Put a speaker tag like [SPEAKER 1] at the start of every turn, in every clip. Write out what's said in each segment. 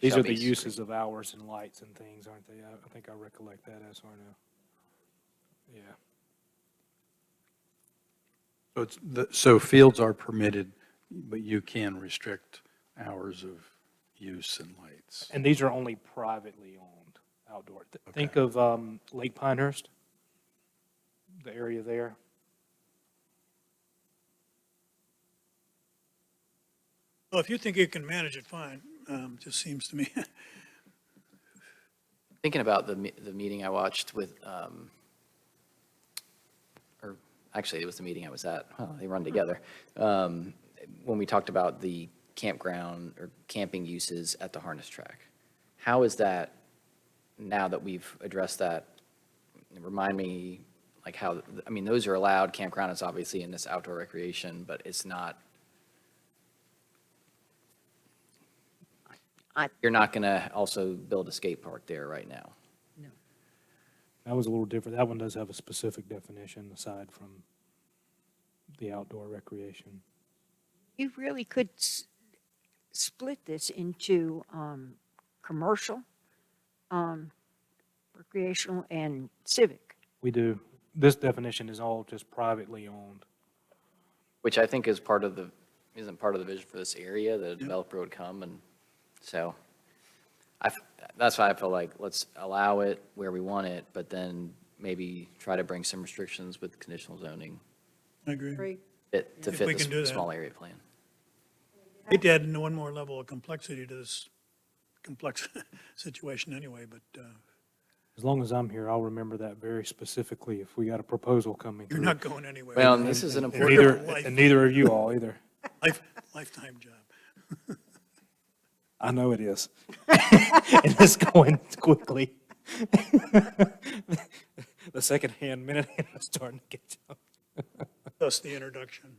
[SPEAKER 1] These
[SPEAKER 2] Shall
[SPEAKER 1] are
[SPEAKER 2] be
[SPEAKER 1] the
[SPEAKER 2] discreet.
[SPEAKER 1] uses of hours and lights and things, aren't they? I, I think I recollect that as or no. Yeah,
[SPEAKER 3] So it's, the- so fields are permitted, but you can restrict hours of use and lights.
[SPEAKER 1] and these are only privately owned outdoor. Th- Think of, um, Lake Pinehurst, the area there.
[SPEAKER 4] Well, if you think you can manage it, fine. Um, just seems to me.
[SPEAKER 2] Thinking about the, me- the meeting I watched with, um, or actually, it was the meeting I was at, Oh, they
[SPEAKER 1] Hmm.
[SPEAKER 2] run together. Um, When we talked about the campground or camping uses at the harness track. How is that, now that we've addressed that, remind me, like how, I mean, those are allowed, campground is obviously in this outdoor recreation, but it's not,
[SPEAKER 5] I-
[SPEAKER 2] you're not going to also build a skate park there right now.
[SPEAKER 1] That was a little different. That one does have a specific definition aside from the outdoor recreation.
[SPEAKER 5] You really could s- split this into um, commercial, um, recreational, and civic.
[SPEAKER 1] We do, this definition is all just privately owned.
[SPEAKER 2] Which I think is part of the, isn't part of the vision for this area, that a developer would come and, so. I, f- that's why I feel like, let's allow it where we want it, but then maybe try to bring some restrictions with conditional zoning
[SPEAKER 4] I agree.
[SPEAKER 6] Agree.
[SPEAKER 2] fit- to
[SPEAKER 4] If
[SPEAKER 2] fit
[SPEAKER 4] we can do
[SPEAKER 2] this
[SPEAKER 4] that.
[SPEAKER 2] small area plan.
[SPEAKER 4] It added one more level of complexity to this complex situation anyway, but, uh,
[SPEAKER 1] As long as I'm here, I'll remember that very specifically if we got a proposal coming
[SPEAKER 4] you're
[SPEAKER 1] through.
[SPEAKER 4] not going anywhere.
[SPEAKER 2] Well, and this is an
[SPEAKER 1] And
[SPEAKER 2] important,
[SPEAKER 1] neither,
[SPEAKER 4] Life-
[SPEAKER 1] and neither of you all either.
[SPEAKER 4] Life- Lifetime job.
[SPEAKER 1] I know it is. And it's going quickly. The second-hand minute hand is starting to get tough.
[SPEAKER 4] Thus the introduction.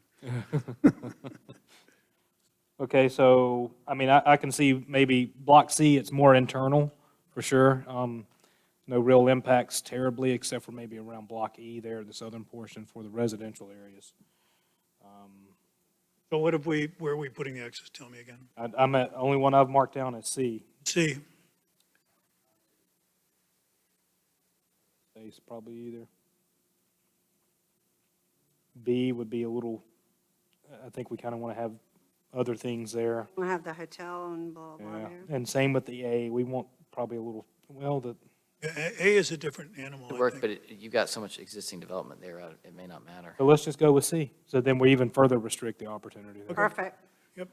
[SPEAKER 1] Okay, so, I mean, I, I can see maybe Block C, it's more internal, for sure. Um, No real impacts terribly, except for maybe around Block E there, the southern portion for the residential areas.
[SPEAKER 4] So what have we, where are we putting the X's? Tell me again.
[SPEAKER 1] I, I'm at, only one I've marked down is C.
[SPEAKER 4] C,
[SPEAKER 1] Ace probably either. B would be a little, I think we kind of want to have other things there.
[SPEAKER 6] We have the hotel and blah, blah
[SPEAKER 1] Yeah.
[SPEAKER 6] there.
[SPEAKER 1] And same with the A, we want probably a little, well, the,
[SPEAKER 4] A A is a different animal,
[SPEAKER 2] to
[SPEAKER 4] I
[SPEAKER 2] work,
[SPEAKER 4] think.
[SPEAKER 2] but it- you've got so much existing development there, I- it may not matter.
[SPEAKER 1] so let's just go with C. So then we even further restrict the opportunity there.
[SPEAKER 6] Perfect.
[SPEAKER 4] Yep.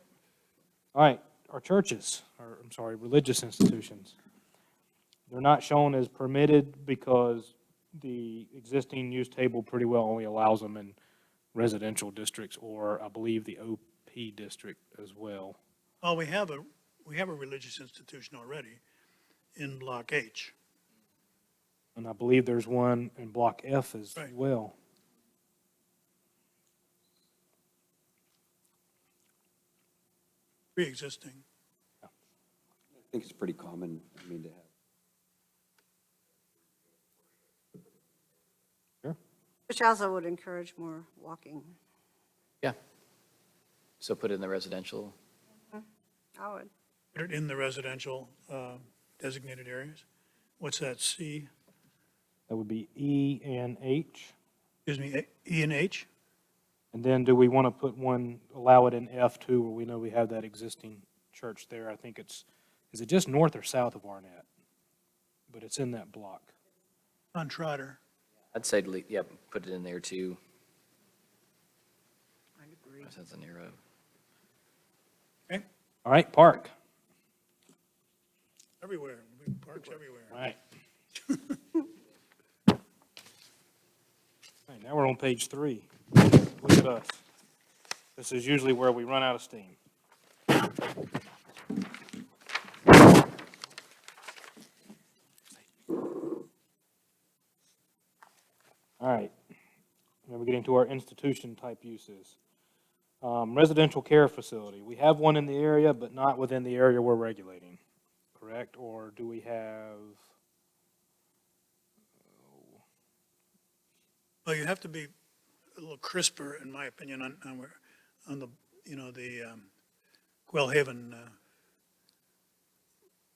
[SPEAKER 1] All right, our churches, or I'm sorry, religious institutions. They're not shown as permitted because the existing use table pretty well only allows them in residential districts or I believe the OP district as well.
[SPEAKER 4] Well, we have a, we have a religious institution already in Block H.
[SPEAKER 1] And I believe there's one in Block F as
[SPEAKER 4] Right.
[SPEAKER 1] well.
[SPEAKER 4] Pre-existing.
[SPEAKER 7] I think it's pretty common, I mean, to have
[SPEAKER 6] Which also would encourage more walking.
[SPEAKER 2] Yeah. So put it in the residential,
[SPEAKER 6] I would.
[SPEAKER 4] Put it in the residential uh, designated areas. What's that, C,
[SPEAKER 1] That would be E and H.
[SPEAKER 4] excuse me, A- E and H?
[SPEAKER 1] And then do we want to put one, allow it in F two where we know we have that existing church there? I think it's, is it just north or south of Arnett? But it's in that block.
[SPEAKER 4] On Trotter.
[SPEAKER 2] I'd say, le- yeah, put it in there too. I agree. That's a near road.
[SPEAKER 4] Okay.
[SPEAKER 1] All right, park.
[SPEAKER 4] Everywhere, We- parks everywhere.
[SPEAKER 1] All right. All right, now we're on page three. Look at us. This is usually where we run out of steam. All right, now we're getting to our institution-type uses. Um, Residential care facility, we have one in the area, but not within the area we're regulating correct? Or do we have,
[SPEAKER 4] Well, you have to be a little crisper, in my opinion, on, on where, on the, you know, the um, Quail Haven uh,